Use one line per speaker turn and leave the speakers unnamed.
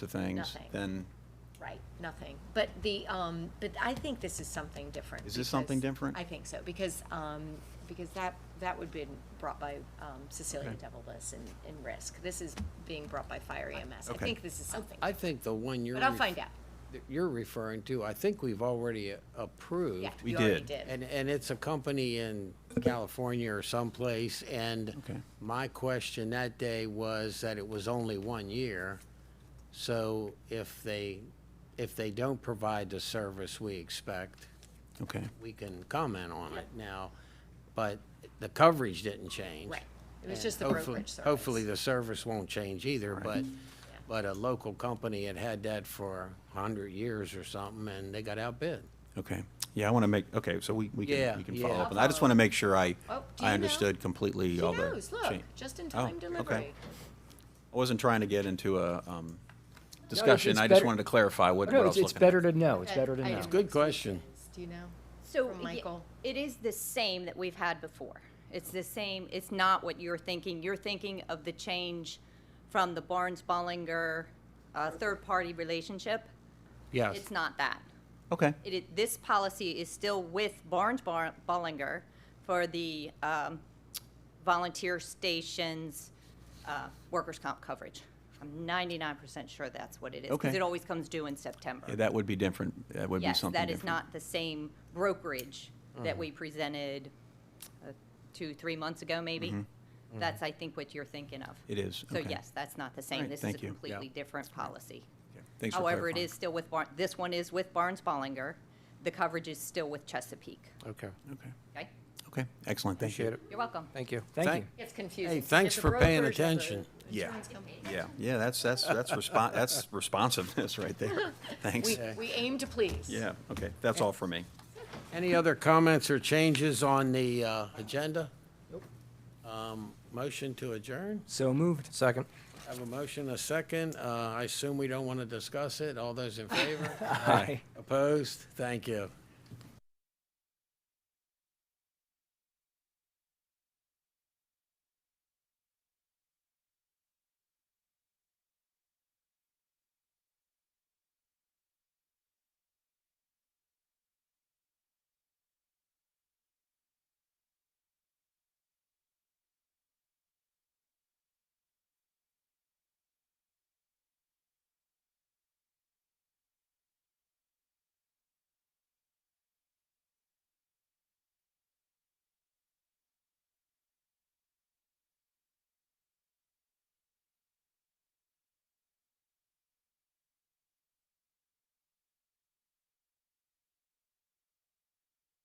to things,
Nothing.
then
Right, nothing. But the, um, but I think this is something different.
Is this something
because-
different?
I think so, because, um, because that, that would be brought by, um, Cecilia
Okay.
Devilis and, and Risk. This is being brought by Fire EMS. I
Okay.
think this is something,
I think the one you're.
but I'll
ref-
find out.
that You're referring to, I think we've already approved.
Yeah,
We
you already
did.
did.
And, and it's a company in California or someplace, and
Okay.
my question that day was that it was only one year. So if they, if they don't provide the service we expect,
okay.
we can comment on it now, but the coverage didn't change.
Right. It was
And
just the
hopefully-
brokerage service.
Hopefully, the service won't change either, but, but a local company had had that for a hundred years or something, and they got outbid.
Okay, yeah, I want to make, okay, so we, we
Yeah,
can, we can follow
yeah.
up. And I just want to make sure I,
Oh, do you
I
know?
understood completely
She
all the.
knows, look,
cha-
just in
Oh,
time
okay.
delivery.
I wasn't trying to get into a um, discussion, I just
better-
wanted to clarify what what I
No,
was
it's,
looking
it's
at.
better to know, it's
Okay,
better to
I
know.
know.
Good question.
Do you know?
So
From
ye-
Michael.
It is the same that we've had before. It's the same, it's not what you're thinking. You're thinking of the change from the Barnes Bollinger uh, third-party relationship.
Yes.
It's not that.
Okay,
It, i- this policy is still with Barnes Bar- Bollinger for the um, volunteer stations, uh, workers' comp coverage. I'm 99% sure that's what it is. 'cause
Okay.
it always comes due in September.
Yeah, that would be different, that would be
Yes,
something
that
different.
is not the same brokerage that we presented uh, two, three months ago, maybe. That's, I think, what you're thinking of.
Mm-hmm. It is,
So
okay.
yes, that's not the same.
Alright,
This is a
thank you. Yeah.
completely different policy.
Okay, Thanks for
However, it
clarifying.
is still with, Bar- this one is with Barnes Bollinger. The coverage is still with Chesapeake.
Okay.
Okay,
Okay?
okay, excellent, thank you.
Appreciate it.
You're welcome.
Thank you, thank
Thank-
you.
It's confusing.
Hey,
It's
thanks
a
for paying
brokerage of a
attention.
Yeah,
insurance company.
yeah, yeah, that's, that's, that's respon that's responsiveness right there. Thanks.
We, we aim to please.
Yeah, okay, that's all for me.
Any other comments or changes on the uh, agenda? Um, Motion to adjourn?
So moved. Second.
Have a motion, a second. Uh, I assume we don't want to discuss it. All those in favor?
Aye.
Opposed? Thank you.